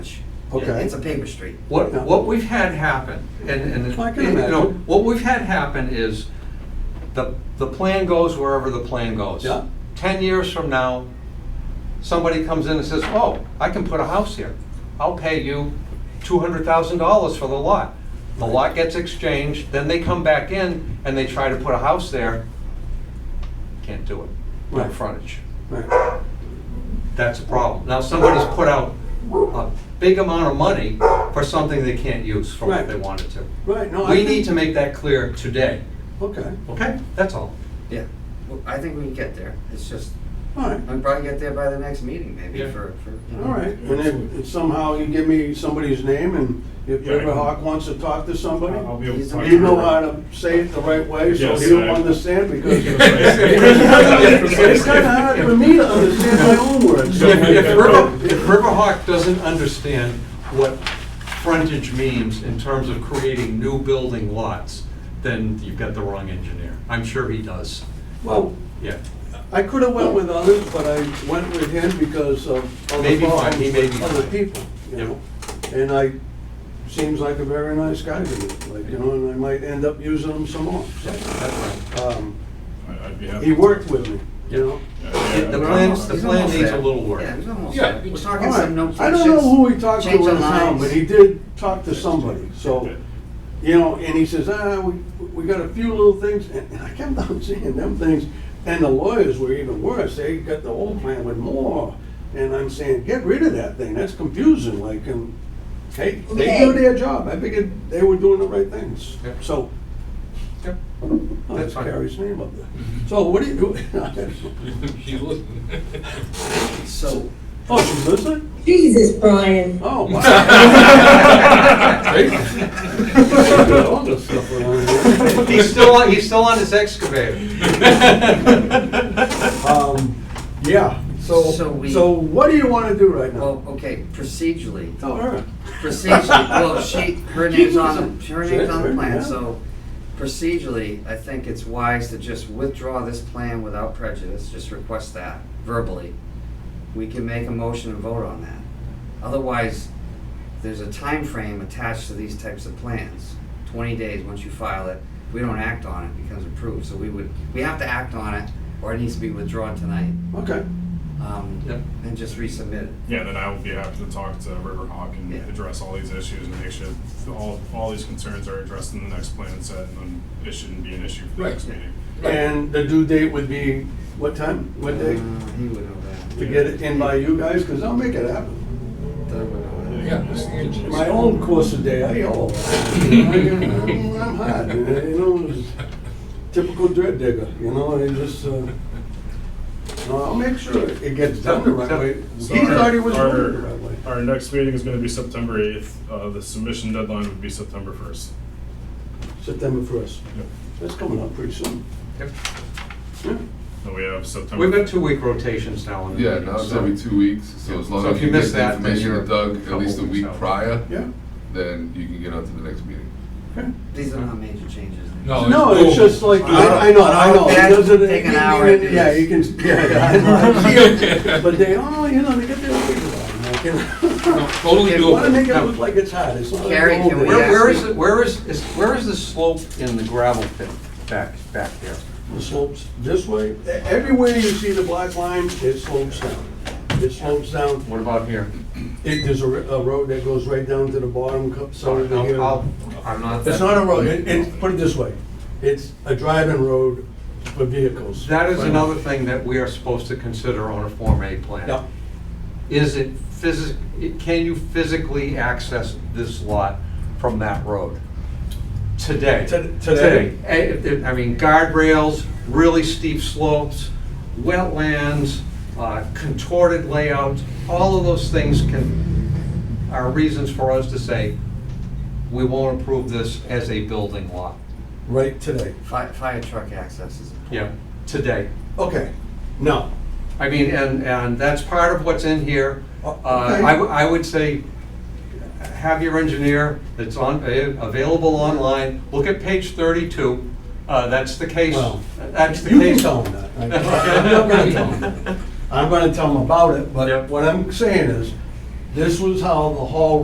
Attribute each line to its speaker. Speaker 1: Okay.
Speaker 2: It's a paper street.
Speaker 3: What,
Speaker 1: Yeah.
Speaker 3: what we've had happen, and, and,
Speaker 1: I can
Speaker 3: you know,
Speaker 1: imagine.
Speaker 3: what we've had happen is the, the plan goes wherever the plan goes.
Speaker 1: Yeah.
Speaker 3: Ten years from now, somebody comes in and says, oh, I can put a house here. I'll pay you two hundred thousand dollars for the lot. The lot gets exchanged, then they come back in and they try to put a house there. Can't do it, no
Speaker 1: Right.
Speaker 3: frontage.
Speaker 1: Right.
Speaker 3: That's a problem. Now, somebody's put out a big amount of money for something they can't use for what
Speaker 1: Right.
Speaker 3: they wanted to.
Speaker 1: Right, no, I
Speaker 3: We
Speaker 1: think-
Speaker 3: need to make that clear today,
Speaker 1: Okay,
Speaker 3: okay? That's all.
Speaker 2: Yeah. Well, I think we can get there. It's just,
Speaker 1: all right,
Speaker 2: we'll probably get there by the next meeting maybe
Speaker 3: Yeah.
Speaker 2: for, for. you know.
Speaker 1: all right. And if- if somehow you give me somebody's name and if
Speaker 4: Yeah, I
Speaker 1: River
Speaker 4: can-
Speaker 1: Hawk wants to talk to somebody,
Speaker 4: I'll be able to
Speaker 2: He's a
Speaker 4: talk to
Speaker 1: you know
Speaker 4: her.
Speaker 1: how to say it the right way so
Speaker 4: Yes,
Speaker 1: he'll
Speaker 4: I-
Speaker 1: understand because it's
Speaker 4: It's
Speaker 1: kind of hard for me to understand my own words.
Speaker 3: If, if River, if Riverhawk doesn't understand what frontage means in terms of creating new building lots, then you've got the wrong engineer. I'm sure he does.
Speaker 1: Well,
Speaker 3: Yeah,
Speaker 1: I could have went with others, but I went with him because of other
Speaker 3: Maybe fine,
Speaker 1: problems
Speaker 3: he may be
Speaker 1: with other
Speaker 3: fine.
Speaker 1: people, you
Speaker 3: Yep.
Speaker 1: know? And I, seems like a very nice guy to me, like, you know, and I might end up using him some more.
Speaker 3: yeah, that's right.
Speaker 1: Um,
Speaker 4: I- I'd be happy.
Speaker 1: He worked with me, you know?
Speaker 4: Yeah,
Speaker 3: The- the
Speaker 4: yeah,
Speaker 3: plans- the
Speaker 2: He's
Speaker 4: yeah.
Speaker 3: plan
Speaker 2: almost
Speaker 3: needs
Speaker 2: there.
Speaker 3: a little work.
Speaker 2: Yeah, he's almost
Speaker 4: Yeah.
Speaker 2: there. We're
Speaker 1: All
Speaker 2: talking some note
Speaker 1: right. I don't know who he talked to
Speaker 2: change
Speaker 1: in
Speaker 2: the
Speaker 1: town,
Speaker 2: lines.
Speaker 1: but he did talk to somebody, so, you know, and he says, ah, we, we got a few little things, and I kept on seeing them things, and the lawyers were even worse, they got the old plan with more, and I'm saying, get rid of that thing, that's confusing, like, and, hey, they do
Speaker 5: Okay.
Speaker 1: their job, I figured they were doing the right things,
Speaker 3: Yep.
Speaker 1: so.
Speaker 3: Yep.
Speaker 1: Oh,
Speaker 3: That's
Speaker 1: That's
Speaker 3: fine.
Speaker 1: Carrie's name up there. So what do you do?
Speaker 4: She's listening.
Speaker 2: So,
Speaker 1: Oh, she's listening?
Speaker 5: Jesus, Brian.
Speaker 1: Oh, wow. All this stuff around here.
Speaker 3: He's still, on- he's still on his excavator.
Speaker 1: Um, yeah, so,
Speaker 2: So we-
Speaker 1: so what do you wanna do right now?
Speaker 2: well, okay, procedurally,
Speaker 1: Tell her.
Speaker 2: procedurally, well, she, her name's on,
Speaker 1: Jesus.
Speaker 2: her name's on the
Speaker 1: Sure,
Speaker 2: plan,
Speaker 1: yeah.
Speaker 2: so procedurally, I think it's wise to just withdraw this plan without prejudice, just request that verbally. We can make a motion and vote on that. Otherwise, there's a time frame attached to these types of plans. Twenty days, once you file it, we don't act on it, it becomes approved, so we would, we have to act on it, or it needs to be withdrawn tonight,
Speaker 1: Okay,
Speaker 2: um,
Speaker 3: Yep.
Speaker 2: and just resubmit it.
Speaker 4: Yeah, then I will be happy to talk to Riverhawk and
Speaker 2: Yeah.
Speaker 4: address all these issues and make sure all, all these concerns are addressed in the next plan set and then it shouldn't be an issue for the
Speaker 1: Right.
Speaker 4: next meeting.
Speaker 1: and the due date would be, what time, what
Speaker 2: Uh,
Speaker 1: day?
Speaker 2: He would know that.
Speaker 1: To get it in by you guys, cause I'll make it happen.
Speaker 2: Doug would know that.
Speaker 4: Yeah, just-
Speaker 1: My own course of day, I yell. I'm hot, you know, it's typical dread digger, you know, and just, uh, no, I'll make sure it gets done the right way.
Speaker 4: So
Speaker 1: He
Speaker 4: our-
Speaker 1: thought he was
Speaker 4: our-
Speaker 1: doing it the right way.
Speaker 4: Our next meeting is gonna be September eighth, uh, the submission deadline would be September first.
Speaker 1: September first.
Speaker 4: Yep.
Speaker 1: That's coming up pretty soon.
Speaker 3: Yep.
Speaker 1: Yeah.
Speaker 4: And we have September.
Speaker 3: We've got two-week rotations now on the
Speaker 6: Yeah,
Speaker 3: meetings.
Speaker 6: now it's
Speaker 3: so-
Speaker 6: every two weeks, so as long
Speaker 3: So
Speaker 6: as
Speaker 3: if
Speaker 6: you
Speaker 3: you
Speaker 6: get
Speaker 3: miss that,
Speaker 6: the
Speaker 3: then
Speaker 6: information
Speaker 3: you're
Speaker 6: to Doug at
Speaker 3: couple
Speaker 6: least a
Speaker 3: weeks
Speaker 6: week
Speaker 3: out.
Speaker 6: prior,
Speaker 1: Yeah.
Speaker 6: then you can get on to the next meeting.
Speaker 2: These are not major changes.
Speaker 1: No, it's just like, Oh. I, I know, I know. It
Speaker 2: That
Speaker 1: doesn't-
Speaker 2: take an hour to do
Speaker 1: Yeah,
Speaker 2: this.
Speaker 1: you can, yeah, yeah, I know. But they, oh, you know, they get their way around.
Speaker 7: Totally
Speaker 2: Okay,
Speaker 1: They wanna
Speaker 7: doable.
Speaker 1: make it look like it's hot, it's not. a
Speaker 2: Gary, can
Speaker 1: cold
Speaker 2: we
Speaker 1: day.
Speaker 3: Where,
Speaker 2: ask-
Speaker 3: where is, it- where is, is, where is the slope in the gravel pit back, back there?
Speaker 1: It slopes this way, E- everywhere you see the black line, it slopes down. It slopes down,
Speaker 3: What about here?
Speaker 1: it, there's a, ri- a road that goes right down to the bottom, co- so
Speaker 3: Sorry,
Speaker 1: of the
Speaker 3: I'll-
Speaker 1: hill.
Speaker 3: I'll- I'm not.
Speaker 1: It's
Speaker 3: that-
Speaker 1: not a road, it, it, put it this way, it's a driving road for vehicles.
Speaker 3: That is another thing that we are supposed to consider on a Form A plan.
Speaker 1: Yeah.
Speaker 3: Is it physic, it- can you physically access this lot from that road? Today?
Speaker 1: To- today?
Speaker 3: Eh, if there- I mean, guardrails, really steep slopes, wetlands, uh, contorted layouts, all of those things can, are reasons for us to say, we won't approve this as a building lot.
Speaker 1: Right today,
Speaker 2: Fire, fire truck access is.
Speaker 3: Yeah. Today.
Speaker 1: okay, now,
Speaker 3: I mean, and, and that's part of what's in here. Uh,
Speaker 1: O- okay.
Speaker 3: I, w- I would say, have your engineer, it's on, eh, available online, look at page thirty-two, uh, that's the case,
Speaker 1: Well,
Speaker 3: that's the
Speaker 1: you can
Speaker 3: case.
Speaker 1: tell them that. I'm not gonna tell them. I'm gonna tell them about it, but
Speaker 3: Yep.
Speaker 1: what I'm saying is, this was how the hall